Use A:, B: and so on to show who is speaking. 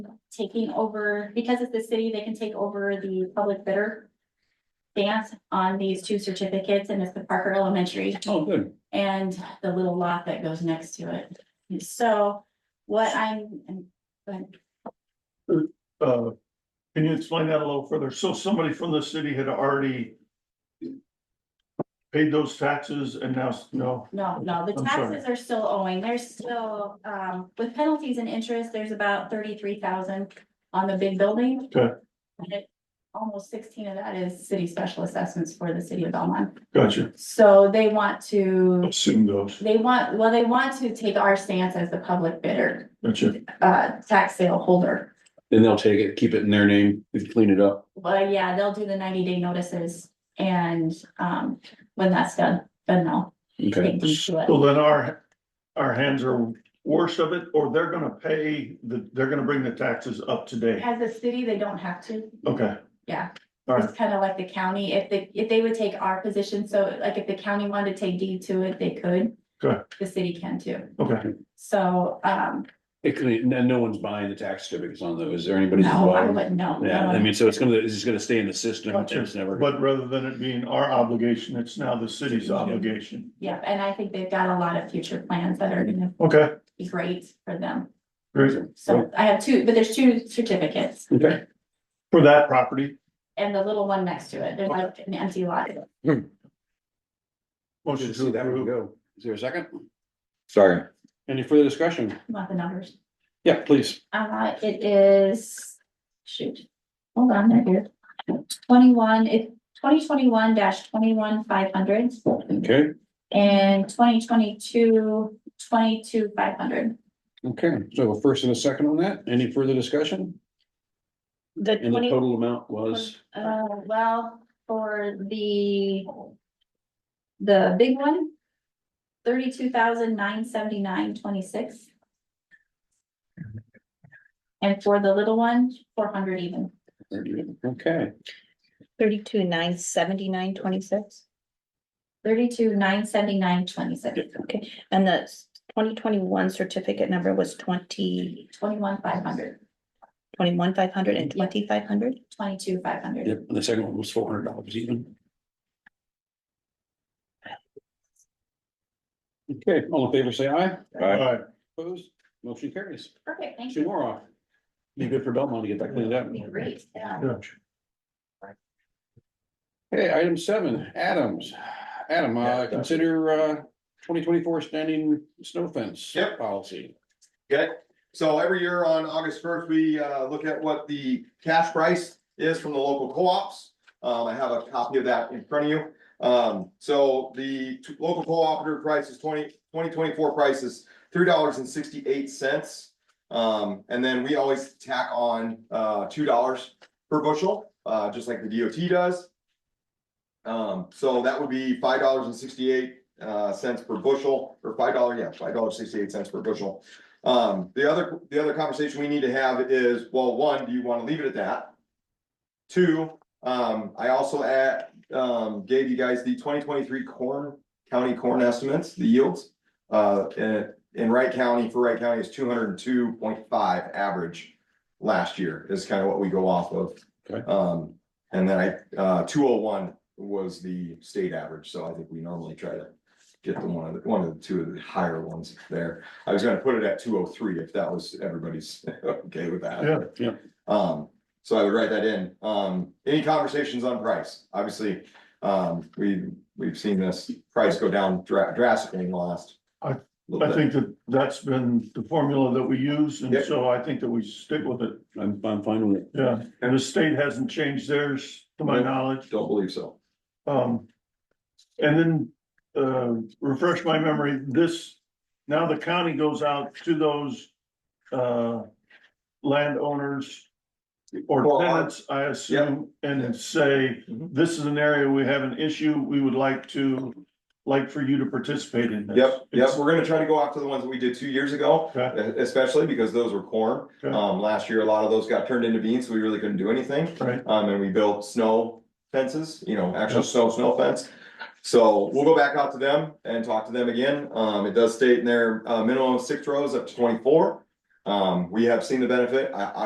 A: taking over, because it's the city, they can take over the public bidder. Dance on these two certificates and it's the Parker Elementary
B: Oh, good.
A: and the little lot that goes next to it. So what I'm, I'm- but
B: Uh, can you explain that a little further? So somebody from the city had already paid those taxes and now, s- no,
A: no, no, the
B: I'm sorry.
A: taxes are still owing. There's still, um, with penalties and interest, there's about thirty-three thousand on the big building.
B: Okay.
A: And it- Almost sixteen of that is city special assessments for the city of Belmont.
B: gotcha.
A: So they want to,
B: Assume those,
A: they want, well, they want to take our stance as the public bidder,
B: gotcha.
A: uh, tax sale holder.
C: Then they'll take it, keep it in their name, and clean it up.
A: But yeah, they'll do the ninety day notices and, um, when that's done, then they'll
C: Okay.
A: take them to it.
B: So then our, our hands are worse of it, or they're gonna pay, the they're gonna bring the taxes up today.
A: As a city, they don't have to,
B: Okay,
A: yeah.
B: All right.
A: It's kind of like the county, if they, if they would take our position, so like if the county wanted to take deed to it, they could.
B: Good.
A: The city can too,
B: okay.
A: so, um,
C: It could, and no one's buying the tax certificates on those. Is there anybody? that's
A: no, I
C: buying?
A: wouldn't know.
C: Yeah, I mean, so it's gonna, it's just gonna stay in the system. and
B: Gotcha.
C: It's never.
B: But rather than it being our obligation, it's now the city's obligation.
A: Yeah, and I think they've got a lot of future plans that are gonna
B: Okay,
A: be great for them.
B: great.
A: So I have two, but there's two certificates
C: Okay.
B: For that property,
A: and the little one next to it. There's like an empty lot.
B: motion to approve.
C: go. Is there a second?
D: Sorry,
C: Any further discussion?
A: Want the numbers?
C: Yeah, please.
A: Uh, it is, shoot, hold on, I here. Twenty-one, it, twenty twenty-one dash twenty-one five hundred
C: Okay,
A: and 2022 22 five hundred.
C: okay. So a first and a second on that. Any further discussion?
E: The
C: And the
E: twenty,
C: total amount was,
E: uh,
A: Uh, well, for the the big one, thirty-two thousand nine seventy-nine twenty-six. And for the little one, four hundred even.
C: okay,
E: thirty-two, nine, seventy-nine, twenty-six,
A: Thirty-two nine seventy-nine twenty-six,
E: and the twenty twenty-one certificate number was twenty,
A: twenty-one five hundred,
E: twenty-one, five hundred and
A: Yeah.
E: twenty-five hundred?
A: twenty-two five hundred.
C: Yep, and the second one was four hundred dollars even. Okay, all in favor, say aye.
B: All
D: I
B: right,
C: Opposed, motion carries.
A: Perfect, thank
C: Two
A: you.
C: more off. Be good for Belmont to get that cleaned up.
A: Be Great, yeah.
C: Okay, item seven, Adams. Adam, uh, consider, uh, twenty twenty-four standing snow fence.
F: Yep.
C: Policy.
F: Okay, so every year on August first, we uh look at what the cash price is from the local co-ops. Um, I have a copy of that in front of you. Um, so the t- local cooperative price is twenty, twenty twenty-four price is three dollars and sixty-eight cents. Um, and then we always tack on uh two dollars per bushel, uh, just like the DOT does. Um, so that would be five dollars and sixty-eight uh cents per bushel, or five dollar, yeah, five dollars sixty-eight cents per bushel. Um, the other, the other conversation we need to have is, well, one, do you wanna leave it at that? Two, um, I also add, um, gave you guys the twenty twenty-three corn, county corn estimates, the yields. Uh, in, in Wright County, for Wright County is two hundred and two point five average last year is kind of what we go off of.
C: Okay.
F: Um, and then I, uh, two oh one was the state average, so I think we normally try to get the one of the, one of the two of the higher ones there. I was gonna put it at two oh three if that was, everybody's okay with that.
B: Yeah,
C: yeah.
F: Um, so I would write that in. Um, any conversations on price? Obviously, um, we, we've seen this price go down dra- drastically in the last.
B: I-
F: little
B: I
F: bit.
B: think that that's been the formula that we use, and
F: Yep.
B: so I think that we stick with it,
C: I'm, I'm fine with it.
B: yeah. And the state hasn't changed theirs, to my
F: Nope.
B: knowledge.
F: Don't believe so.
B: Um, and then, uh, refresh my memory, this, now the county goes out to those, uh, landowners
F: Well,
B: or
F: I-
B: tenants, I assume, and say,
F: Mhm.
B: this is an area we have an issue, we would like to, like for you to participate in this.
F: Yep, yep,
B: It's-
F: we're gonna try to go after the ones that we did two years ago,
B: Okay.
F: e- especially because those were corn.
B: Okay.
F: Um, last year, a lot of those got turned into beans, so we really couldn't do anything.
B: Right,
F: Um, and we built snow fences, you know, actual
B: Yeah.
F: snow, snow fence. So we'll go back out to them and talk to them again. Um, it does state in there, uh, minimum of six rows up to twenty-four. Um, we have seen the benefit. I,